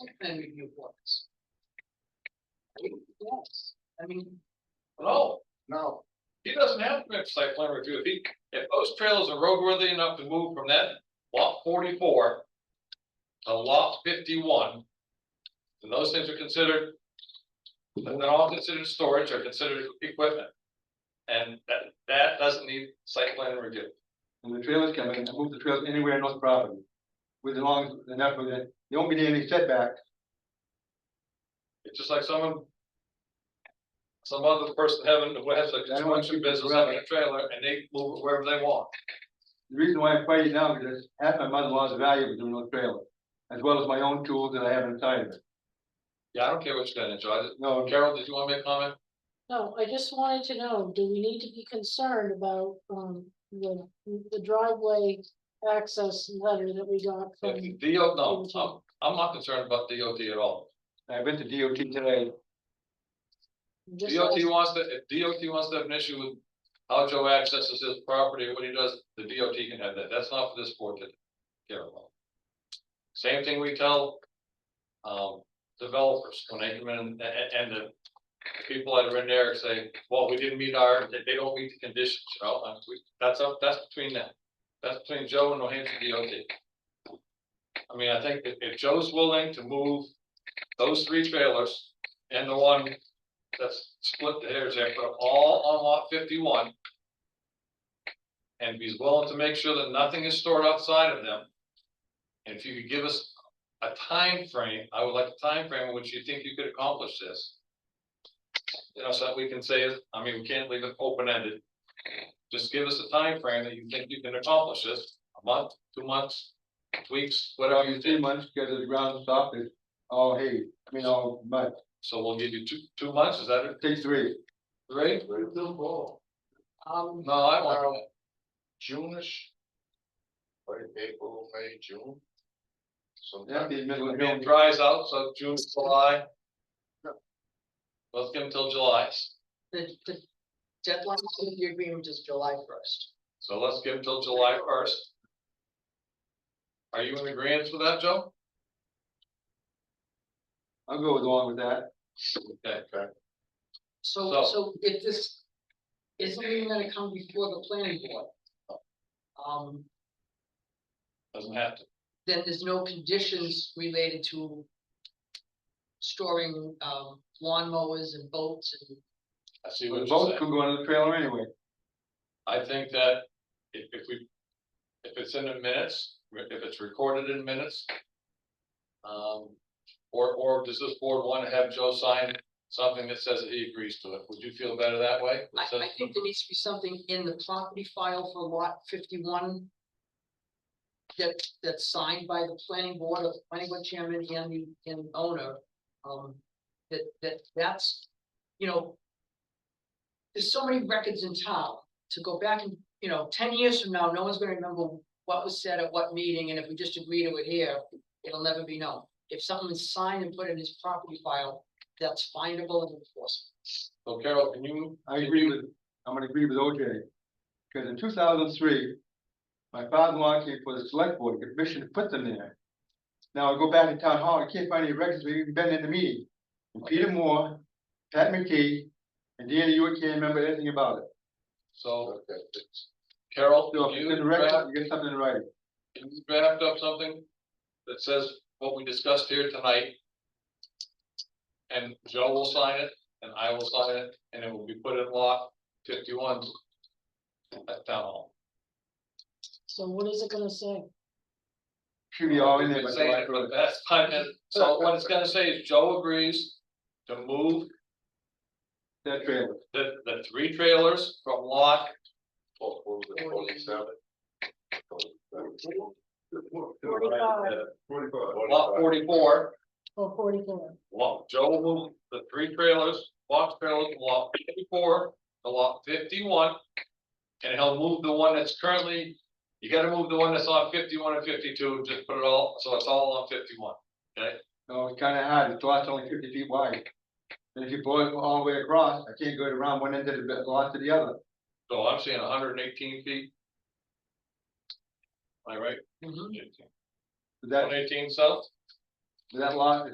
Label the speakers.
Speaker 1: plan review boards. I mean, Yes, I mean,
Speaker 2: No,
Speaker 3: No,
Speaker 2: he doesn't have to have site plan review. If he, if those trails are roadworthy enough to move from that lot forty-four to lot fifty-one, then those things are considered, and they're all considered storage or considered equipment. And that, that doesn't need site plan review.
Speaker 3: and the trailers come in, move the trailers anywhere in those property. With as long, as- and that, there won't be any setback,
Speaker 2: It's just like someone. Some other person having, who has a construction business having a trailer and they move it wherever they want.
Speaker 3: the reason why I'm fighting now, is because half my mother-in-law's value was in those trailers. As well as my own tools that I have inside of it,
Speaker 2: Yeah, I don't care what you're gonna enjoy.
Speaker 3: no,
Speaker 2: Carol, did you want to make a comment?
Speaker 4: No, I just wanted to know, do we need to be concerned about, um, the, the driveway access letter that we got from?
Speaker 2: If the DO, no, I'm, I'm not concerned about DOT at all.
Speaker 3: I went to DOT today,
Speaker 4: just
Speaker 2: DOT
Speaker 4: like-
Speaker 2: wants to, if DOT wants to have an issue with how Joe accesses his property, or what he does, the DOT can have that. That's not for this board to care about. Same thing we tell, um, developers when they come in and, and- and the people that are in there say, well, we didn't meet our, they, they don't meet the conditions, you know, and we, that's up, that's between them. That's between Joe and New Hampshire DOT. I mean, I think if, if Joe's willing to move those three trailers and the one that's split the hairs there, put them all on lot fifty-one. And be willing to make sure that nothing is stored outside of them. And if you could give us a time frame, I would like a time frame in which you think you could accomplish this. You know, so that we can say, I mean, we can't leave it open-ended. Just give us a time frame that you think you can accomplish this, a month, two months, weeks, whatever you
Speaker 3: three
Speaker 2: think.
Speaker 3: months, because the ground soft, it's all hay, I mean, all mud,
Speaker 2: So we'll give you two, two months, is that it,
Speaker 3: take three.
Speaker 2: right?
Speaker 1: um,
Speaker 2: No, I want.
Speaker 5: June-ish. Right, April, May, June. Sometime,
Speaker 3: That'd be middle of
Speaker 2: I mean, it
Speaker 3: June,
Speaker 2: dries out, so June, July.
Speaker 1: No.
Speaker 2: Let's give them till July,
Speaker 1: the, the deadline for the agreement is July first.
Speaker 2: so let's give them till July first. Are you in agreement with that, Joe?
Speaker 3: I'll go along with that,
Speaker 2: Okay,
Speaker 1: So,
Speaker 2: So-
Speaker 1: so if this isn't even gonna come before the planning board. Um,
Speaker 2: doesn't have to,
Speaker 1: then there's no conditions related to storing, um, lawnmowers and boats and
Speaker 2: I see what
Speaker 3: the
Speaker 2: you're
Speaker 3: boats
Speaker 2: saying,
Speaker 3: could go on the trailer anyway,
Speaker 2: I think that if, if we. If it's in the minutes, if it's recorded in minutes. Um, or, or does this board want to have Joe sign something that says that he agrees to it, would you feel better that way?
Speaker 1: I,
Speaker 2: That says-
Speaker 1: I think there needs to be something in the property file for lot fifty-one. That, that's signed by the planning board, or the planning board chairman and the, and owner, um, that, that, that's, you know. There's so many records in town, to go back and, you know, ten years from now, no one's gonna remember what was said at what meeting, and if we just agree to it here, it'll never be known. If something is signed and put in his property file, that's findable and enforceable.
Speaker 2: So Carol, can you
Speaker 3: I agree with, I'm gonna agree with OJ. Cause in two thousand three, my father-in-law came for the select board, the commission put them there. Now I go back to town hall, I can't find any records, we've even been in the meeting. And Peter Moore, Pat McKee, and Danny, you can't remember anything about it.
Speaker 2: So
Speaker 5: okay,
Speaker 2: Carol,
Speaker 3: So
Speaker 2: can
Speaker 3: if it's
Speaker 2: you
Speaker 3: in the record,
Speaker 2: draft,
Speaker 3: you get something in writing.
Speaker 2: can you draft up something that says what we discussed here tonight? And Joe will sign it and I will sign it and it will be put in lot fifty-one at town hall.
Speaker 4: So what is it gonna say?
Speaker 3: Should be all in there.
Speaker 2: We've
Speaker 3: by
Speaker 2: been saying
Speaker 3: July
Speaker 2: it for the
Speaker 3: 1st.
Speaker 2: past five minutes. So what it's gonna say is Joe agrees to move
Speaker 3: That trailer,
Speaker 2: the, the three trailers from lot
Speaker 5: Well, what was it, forty-seven?
Speaker 4: Forty-five
Speaker 5: Forty-five.
Speaker 2: lot forty-four
Speaker 4: or Oh, forty-four?
Speaker 2: Lot, Joe will move the three trailers, box trailers, from lot fifty-four, to lot fifty-one. And he'll move the one that's currently, you gotta move the one that's on fifty-one and fifty-two, just put it all, so it's all on fifty-one.
Speaker 3: no, it's kinda hard, the lot's only fifty feet wide. And if you boil it all the way across, I can't go around one end of the lot to the other.
Speaker 2: So I'm seeing hundred and eighteen feet. Am I right?
Speaker 1: Mhm.
Speaker 3: But
Speaker 2: One
Speaker 3: That,
Speaker 2: eighteen south?
Speaker 3: that lot